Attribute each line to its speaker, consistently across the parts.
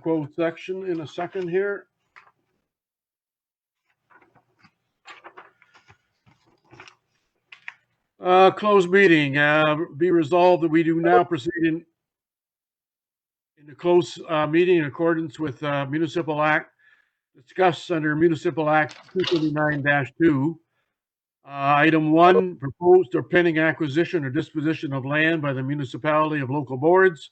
Speaker 1: closed section in a second here. Uh, closed meeting, uh, be resolved that we do now proceed in in the close, uh, meeting in accordance with, uh, municipal act, discussed under municipal act two thirty-nine two. Uh, item one, proposed or pending acquisition or disposition of land by the municipality of local boards.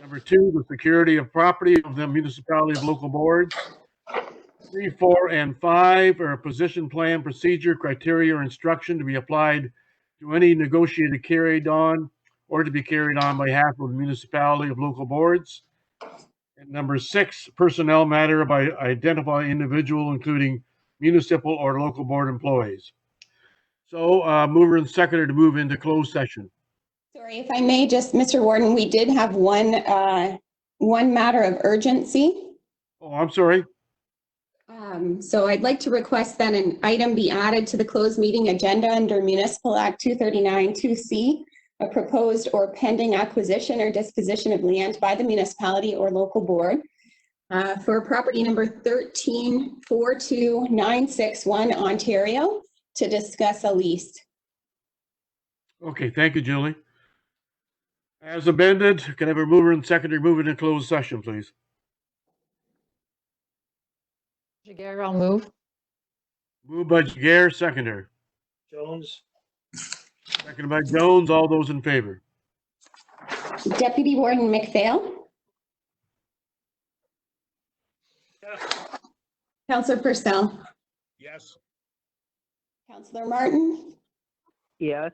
Speaker 1: Number two, the security of property of the municipality of local boards. Three, four, and five are a position plan, procedure, criteria, or instruction to be applied to any negotiated carried on or to be carried on by half of the municipality of local boards. And number six, personnel matter by identify individual, including municipal or local board employees. So, uh, mover and seconder to move into closed session.
Speaker 2: Sorry, if I may, just, Mr. Warden, we did have one, uh, one matter of urgency.
Speaker 1: Oh, I'm sorry.
Speaker 2: Um, So I'd like to request that an item be added to the closed meeting agenda under Municipal Act 239-2C, a proposed or pending acquisition or disposition of land by the municipality or local board uh, for property number 1342961 Ontario to discuss a lease.
Speaker 1: Okay, thank you, Julie. As amended, can I have a mover and seconder move into closed session, please?
Speaker 3: Jager, I'll move.
Speaker 1: Moved by Jager, seconder.
Speaker 4: Jones,
Speaker 1: Seconded by Jones. All those in favor?
Speaker 2: Deputy Warden McPhail? Counselor Purcell?
Speaker 5: Yes.
Speaker 2: Counselor Martin?
Speaker 6: Yes.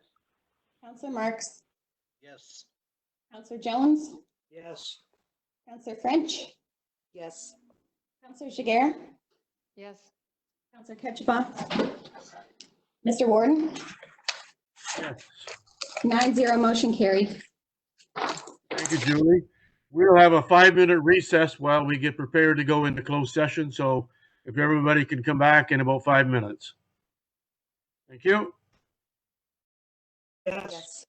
Speaker 2: Counselor Marks?
Speaker 5: Yes.
Speaker 2: Counselor Jones?
Speaker 4: yes.
Speaker 2: Counselor French?
Speaker 6: Yes.
Speaker 2: Counselor Jiguer?
Speaker 3: Yes.
Speaker 2: Counselor Ketchabah? Mr. Warden?
Speaker 1: Yes.
Speaker 2: Nine zero, motion carried.
Speaker 1: Thank you, Julie. We'll have a five-minute recess while we get prepared to go into closed session, so if everybody can come back in about five minutes. Thank you.
Speaker 4: Yes.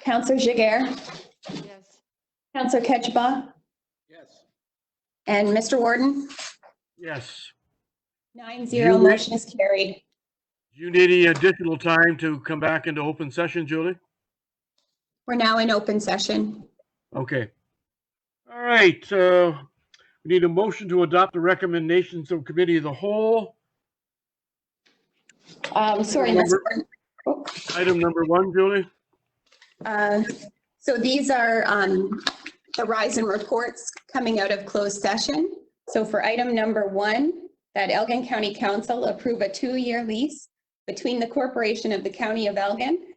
Speaker 2: Counselor Jiguer?
Speaker 3: Yes.
Speaker 2: Counselor Ketchabah?
Speaker 5: Yes.
Speaker 2: And Mr. Warden?
Speaker 1: Yes.
Speaker 2: Nine zero,
Speaker 1: You may-
Speaker 2: motion is carried.
Speaker 1: Do you need any additional time to come back into open session, Julie?
Speaker 2: We're now in open session.
Speaker 1: Okay. All right, uh, we need a motion to adopt the recommendations of committee of the whole.
Speaker 2: Um, Sorry, Mr.
Speaker 1: Remember-
Speaker 2: Warden.
Speaker 1: Item number one, Julie?
Speaker 2: Uh, So these are um, the rise in reports coming out of closed session. So for item number one, that Elgin County Council approve a two-year lease between the Corporation of the County of Elgin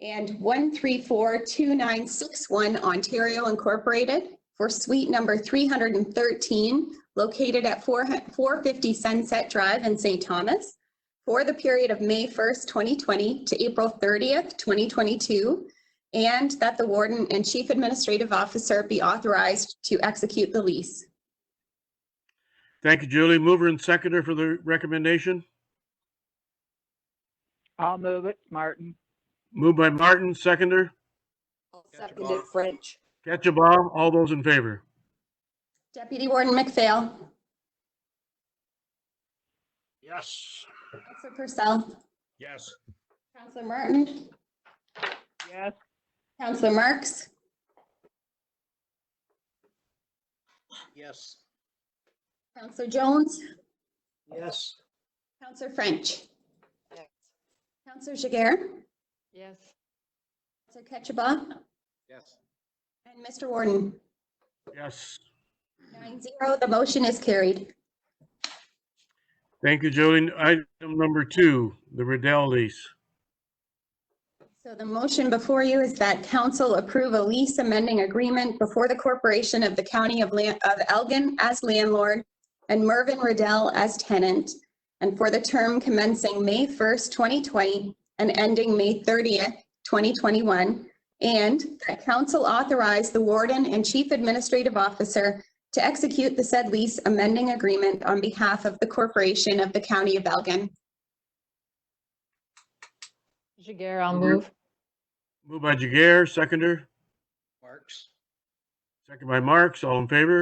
Speaker 2: and 1342961 Ontario Incorporated for suite number 313 located at 4 450 Sunset Drive in St. Thomas for the period of May 1st, 2020 to April 30th, 2022, and that the warden and chief administrative officer be authorized to execute the lease.
Speaker 1: Thank you, Julie. Mover and seconder for the recommendation.
Speaker 6: I'll move it, Martin.
Speaker 1: Moved by Martin, seconder.
Speaker 6: Second is French.
Speaker 1: Ketchabah, all those in favor?
Speaker 2: Deputy Warden McPhail.
Speaker 5: Yes.
Speaker 2: Counselor Purcell.
Speaker 5: Yes.
Speaker 2: Counselor Martin.
Speaker 6: Yes.
Speaker 2: Counselor Marks.
Speaker 5: Yes.
Speaker 2: Counselor Jones.
Speaker 4: Yes.
Speaker 2: Counselor French.
Speaker 6: Yes.
Speaker 2: Counselor Jiguer.
Speaker 3: Yes.
Speaker 2: Counselor Ketchabah.
Speaker 5: Yes.
Speaker 2: And Mr. Warden.
Speaker 1: Yes.
Speaker 2: Nine zero, the motion is carried.
Speaker 1: Thank you, Julie. Item number two, the Riddell lease.
Speaker 2: So the motion before you is that council approve a lease amending agreement before the corporation of the county of Lan- of Elgin as landlord and Mervyn Riddell as tenant, and for the term commencing May 1st, 2020 and ending May 30th, 2021, and that council authorize the warden and chief administrative officer to execute the said lease amending agreement on behalf of the corporation of the county of Elgin.
Speaker 3: Jager, I'll
Speaker 1: Move.
Speaker 3: move.
Speaker 1: Moved by Jagger, seconder.
Speaker 5: Marks.
Speaker 1: Second by Marks, all in favor?